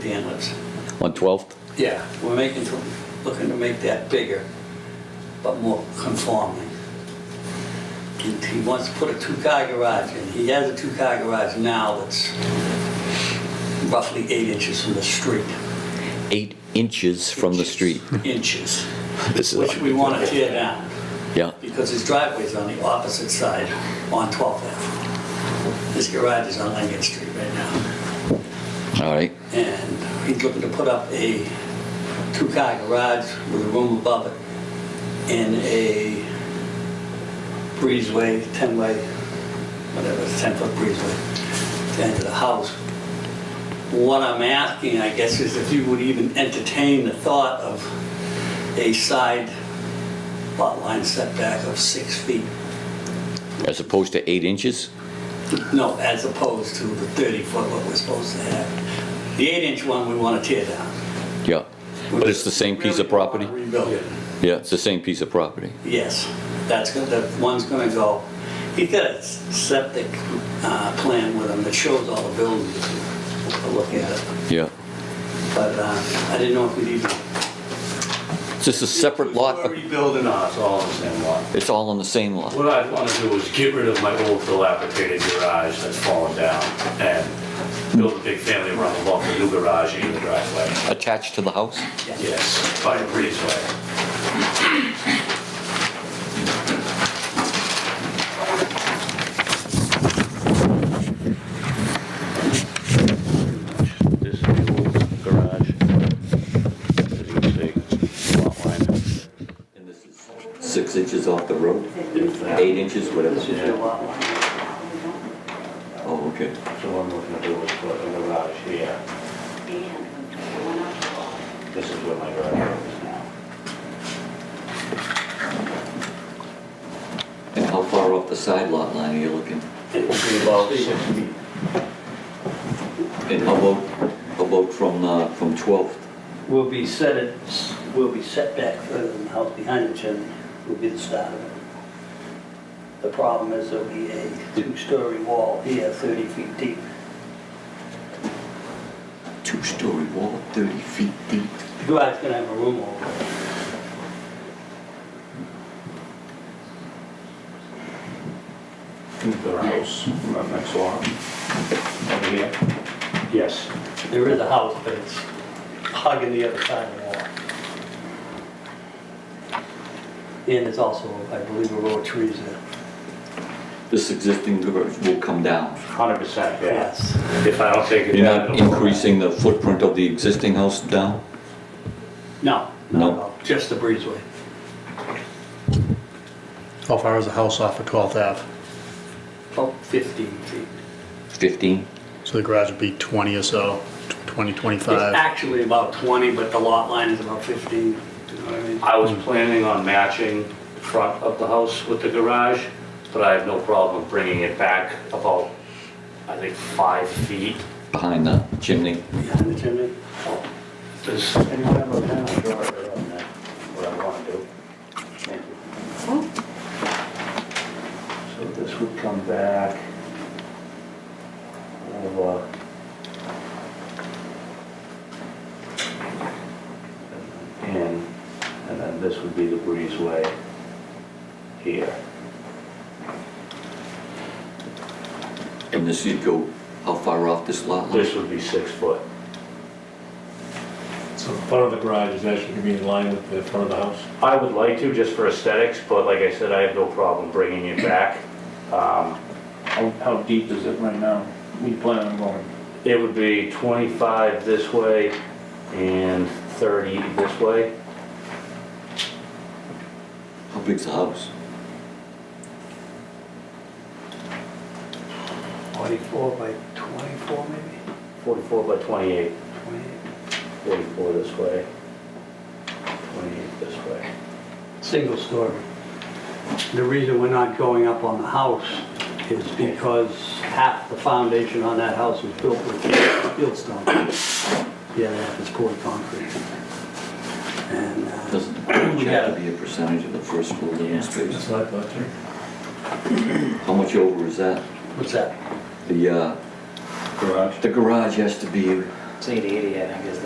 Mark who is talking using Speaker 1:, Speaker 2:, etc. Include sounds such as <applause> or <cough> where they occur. Speaker 1: the inlets.
Speaker 2: On 12th?
Speaker 1: Yeah. We're making, looking to make that bigger, but more conforming. He he wants to put a two-car garage in. He has a two-car garage now that's roughly eight inches from the street.
Speaker 2: Eight inches from the
Speaker 1: Inches.
Speaker 2: street. <laughs>
Speaker 1: Inches,
Speaker 2: This
Speaker 1: which we want to tear down,
Speaker 2: Yeah,
Speaker 1: because his driveway's on the opposite side on 12th Ave. His garage is on Lincoln Street right now.
Speaker 2: all right,
Speaker 1: and he's looking to put up a two-car garage with a room above it and a breezeway, 10-way, whatever, 10-foot breezeway to enter the house. What I'm asking, I guess, is if you would even entertain the thought of a side lot line setback of six feet.
Speaker 2: as opposed to eight inches?
Speaker 1: No, as opposed to the 30-foot what we're supposed to have. The eight-inch one, we want to tear down.
Speaker 2: Yeah, but it's the same piece of property?
Speaker 1: Really wanna Rebuild it.
Speaker 2: Yeah, it's the same piece of property.
Speaker 1: Yes, that's, go- that one's gonna go, he's got a s- septic uh, plan with him that shows all the buildings. We'll Look at it,
Speaker 2: Yeah.
Speaker 1: but uh, I didn't know if we'd even.
Speaker 2: It's just a separate lot,
Speaker 3: We're rebuilding us all in the same lot.
Speaker 2: it's all on the same lot.
Speaker 3: What I want to do is get rid of my old dilapidated garage that's fallen down and build a big family room above the new garage in the driveway.
Speaker 2: Attached to the house?
Speaker 3: Yes, by a breezeway. This is the old garage. As you can see, lot line.
Speaker 2: And this is Six inches off the road? Eight inches, whatever. Oh, okay.
Speaker 3: So I'm looking to do is put a garage here. This is where my garage is now.
Speaker 2: And how far off the side lot line are you looking?
Speaker 3: About six feet.
Speaker 2: And how about, how about from, uh, from 12th?
Speaker 1: Will be set, it will be set back further than the house behind it, Jim, will be the start of it. The problem is there'll be a two-story wall here, 30 feet deep.
Speaker 2: Two-story wall, 30 feet deep.
Speaker 1: The garage gonna have a room over it.
Speaker 3: The house, that next one. Over here? Yes.
Speaker 1: There is a house, but it's hugging the other side of the wall. And there's also, I believe, a row of trees there.
Speaker 2: This existing garage will come down.
Speaker 3: Hundred percent, yeah.
Speaker 1: Yes.
Speaker 3: If I don't take it.
Speaker 2: You're
Speaker 3: down,
Speaker 2: not
Speaker 3: it'll-
Speaker 2: increasing the footprint of the existing house down?
Speaker 1: No,
Speaker 2: No.
Speaker 1: no, no, just the breezeway.
Speaker 4: How far is the house off of 12th Ave?
Speaker 1: About 15 Oh, feet.
Speaker 2: 15?
Speaker 4: So the garage would be 20 or so, 20,
Speaker 1: It's
Speaker 4: 25.
Speaker 1: actually about 20, but the lot line is about 15. Do you know what I mean?
Speaker 3: I was planning on matching the front of the house with the garage, but I have no problem bringing it back about, I think, five feet.
Speaker 2: Behind the chimney?
Speaker 1: Behind the chimney.
Speaker 3: Does anyone have a pen? Sure, on that, what I want to do. Thank you. So this would come back uh, over. In, and then this would be the breezeway here.
Speaker 2: And this, you'd go, how far off this lot line?
Speaker 3: This would be six foot.
Speaker 5: So the front of the garage is actually gonna be in line with the front of the house?
Speaker 3: I would like to, just for aesthetics, but like I said, I have no problem bringing it back. Um,
Speaker 6: How, how deep is it right now? We plan on going,
Speaker 3: It would be 25 this way and 30 this way.
Speaker 2: How big's the house?
Speaker 1: 44 by 24, maybe?
Speaker 3: 44 by 28,
Speaker 1: 28.
Speaker 3: 44 this way, 28 this way.
Speaker 1: Single story. The reason we're not going up on the house is because half the foundation on that house was built with field stone. The other half is poured concrete. And uh,
Speaker 2: Doesn't the garage
Speaker 1: We
Speaker 2: have
Speaker 1: got-
Speaker 2: to be a percentage of the first floor living space?
Speaker 5: what I thought too.
Speaker 2: How much over is that?
Speaker 1: what's that?
Speaker 2: The, uh,
Speaker 5: Garage?
Speaker 2: the garage has to be
Speaker 7: say the 80, I think is